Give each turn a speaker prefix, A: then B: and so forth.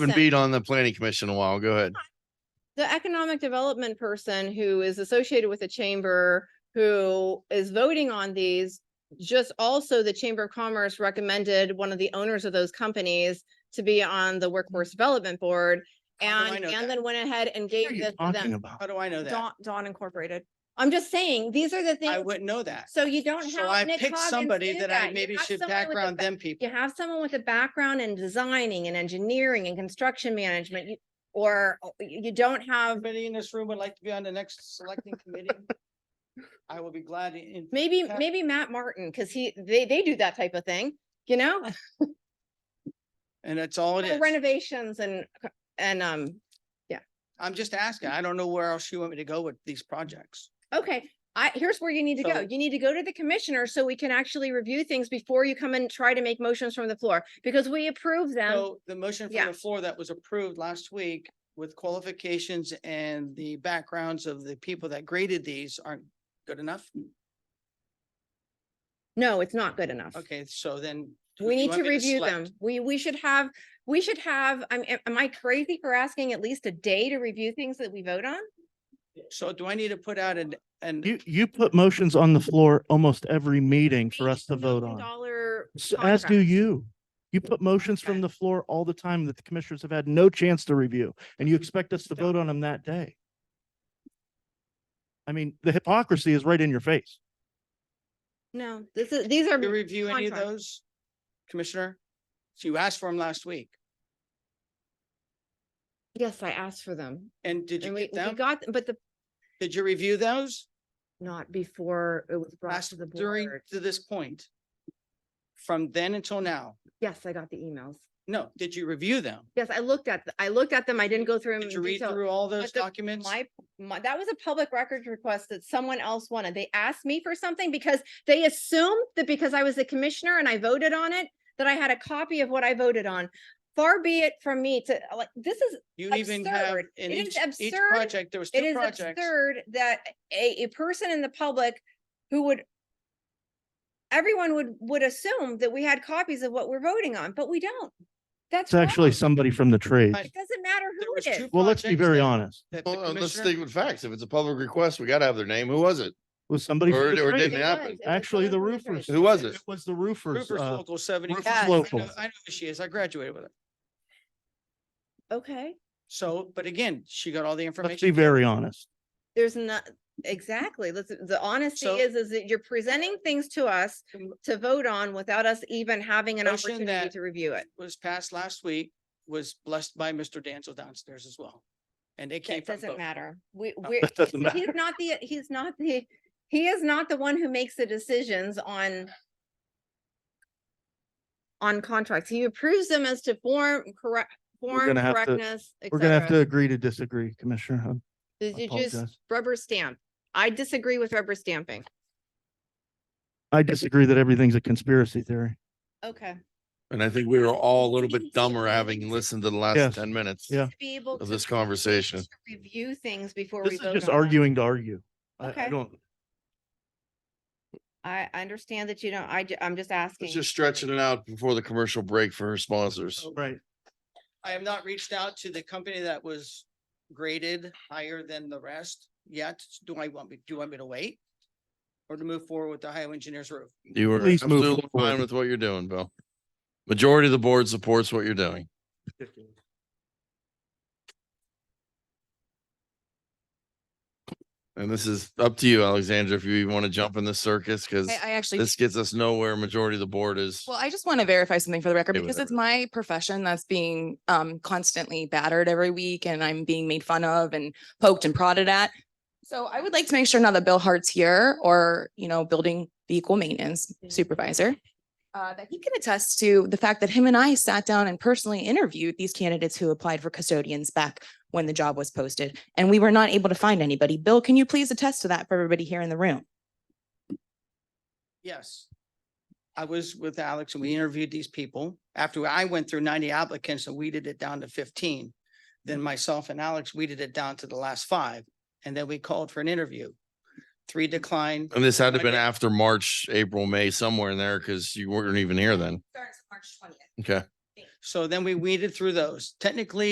A: Been
B: person,
A: beat on the planning commission a while. Go ahead.
B: the economic development person who is associated with the chamber, who is voting on these, just also the Chamber of Commerce recommended one of the owners of those companies to be on the Workforce Development Board.
C: How do Mm-hmm. Oh, I
B: And,
C: know
B: and
C: that?
B: then went ahead and
A: What
B: gave
A: are you
B: this to
A: talking
B: them.
A: about?
C: How do I know that?
D: Dawn, Dawn Incorporated.
B: I'm just saying, these are the
C: I
B: things,
C: wouldn't know that.
B: so you don't have.
C: So I
B: Nick
C: picked
B: Coggins
C: somebody
B: do
C: that I
B: You
C: maybe
B: have
C: should
B: someone with a
C: background
B: ba-
C: them people.
B: You have someone with a background in designing and engineering and construction management, you- or uh, you you don't have
C: Everybody in this room would like to be on the next selecting committee? I will be glad to. in-
B: Maybe,
C: Yeah.
B: maybe Matt Martin, because he, they, they do that type of thing, you know?
C: And that's all it
B: Little
C: is.
B: Renovations and, and, um,
C: I'm just asking. I don't know where else you want me to go with these projects.
B: okay, I, here's where you need to go.
C: So-
B: You need to go to the commissioner so we can actually review things before you come and try to make motions from the floor, because we approve them.
C: So the motion
B: yeah.
C: from the floor that was approved last week with qualifications and the backgrounds of the people that graded these aren't good enough?
B: No, it's not good enough.
C: Okay, so then. who
B: We
C: do you
B: need
C: want
B: to
C: me
B: review
C: select?
B: them. We, we should have, we should have, I'm, am- am I crazy for asking at least a day to review things that we vote on?
C: So do I need to put out an, an
E: You, you put motions on the floor almost every meeting for us to vote on,
B: Dollar.
E: S- as do
B: contracts.
E: you. You put motions from the floor all the time that the commissioners have had no chance to review, and you expect us to vote on them that day. I mean, the hypocrisy is right in your face.
B: No, this is, these are.
C: You review any of
B: contract.
C: those, Commissioner? So you asked for them last week,
B: Yes, I asked for them.
C: and did you
B: And we,
C: get
B: we
C: them?
B: got, them, but the,
C: Did you review those
B: not before it was brought
C: last,
B: to the
C: during,
B: board.
C: to this point? From then until now?
B: Yes, I got the emails.
C: No, did you review them?
B: Yes, I looked at, th- I looked at them. I didn't go through them
C: Did you
B: in
C: read
B: detail.
C: through all those
B: the-
C: documents?
B: My, my, that was a public records request that someone else wanted. They asked me for something because they assumed that because I was the commissioner and I voted on it, that I had a copy of what I voted on. Far be it from me to, like, this is
C: You even have,
B: absurd.
C: in
B: It is
C: each, each
B: absurd.
C: project, there was
B: It
C: two
B: is
C: projects.
B: absurd that a, a person in the public who would everyone would, would assume that we had copies of what we're voting on, but we don't. That's
E: It's actually
B: wrong.
E: somebody from the trades.
C: I-
B: It doesn't matter
C: There
B: who
C: was
B: it
C: two
B: is.
E: Well, let's be
C: projects
E: very
C: that-
E: honest.
C: that the
A: Well, uh, let's
C: commissioner-
A: stick with facts. If it's a public request, we gotta have their name. Who was it?
E: Was somebody?
A: Or-
E: from the
A: or
E: trades.
A: didn't
B: It
A: happen.
B: was- it was
E: Actually, the
B: someone from
E: roofers.
A: Who was it?
E: It was the roofers.
C: Rupert
E: uh,
C: Local seventy.
E: Rupert's
C: I know-
E: local.
C: I know who she is. I graduated with her.
B: Okay,
C: So, but again, she got all the information.
E: Let's be very honest.
B: there's not, exactly. Let's, the honesty
C: So-
B: is, is that you're presenting things to us
C: Mm.
B: to vote on without us even having an
C: Motion
B: opportunity
C: that-
B: to review it.
C: was passed last week was blessed by Mr. Danzel downstairs as well. And it came
B: That
C: from
B: doesn't
C: both. Oh.
B: matter. We,
C: No,
B: we're,
E: That doesn't
B: So
E: matter.
B: He's not the, he's not the, he is not the one who makes the decisions on on contracts. He approves them as to form, correct, form,
E: gonna have to-
B: correctness, et
E: We're gonna have to
B: cetera.
E: agree to disagree, Commissioner. Hub.
B: Did
E: I
B: you just
E: apologize.
B: rubber stamp? I disagree with rubber stamping.
E: I disagree that everything's a conspiracy theory.
B: Okay.
A: And I think we were all a little bit dumber having listened to the last
E: Yes.
A: ten minutes.
E: Yeah.
B: To be able
A: Of
B: to.
A: this conversation.
B: to Review things before we
E: This is
B: vote
E: just
B: on them.
E: arguing to argue. I,
B: Okay.
E: I don't,
B: I, I understand that you don't, I, ju- I'm just asking.
A: Let's just stretching it out before the commercial break for her sponsors.
E: right.
C: I have not reached out to the company that was graded higher than the rest yet. Do I want me, do you want me to wait? Or to move forward with the highway engineer's roof?
A: You were
E: Please move
A: absolutely
E: forward.
A: fine with what you're doing, Bill. Majority of the board supports what you're doing. And this is up to you, Alexandra, if you even want to jump in this circus, because
D: I, I actually,
A: this gets us nowhere. Majority of the board is.
D: well, I just want to verify something for the record
A: Okay,
D: because it's
A: whatever.
D: my profession that's being um constantly battered every week and I'm being made fun of and poked and prodded at. So I would like to make sure now that Bill Hart's here or, you know, building vehicle maintenance supervisor. Uh, that he can attest to the fact that him and I sat down and personally interviewed these candidates who applied for custodians back when the job was posted. And we were not able to find anybody. Bill, can you please attest to that for everybody here in the room?
C: Yes. I was with Alex and we interviewed these people. After I went through ninety applicants and weeded it down to fifteen. Then myself and Alex weeded it down to the last five. And then we called for an interview. Three declined,
A: And this had to have been
C: Okay.
A: after March, April, May, somewhere in there, because you weren't even here then.
D: Starts March twentieth.
A: Okay.
C: So then we weeded through those. Technically,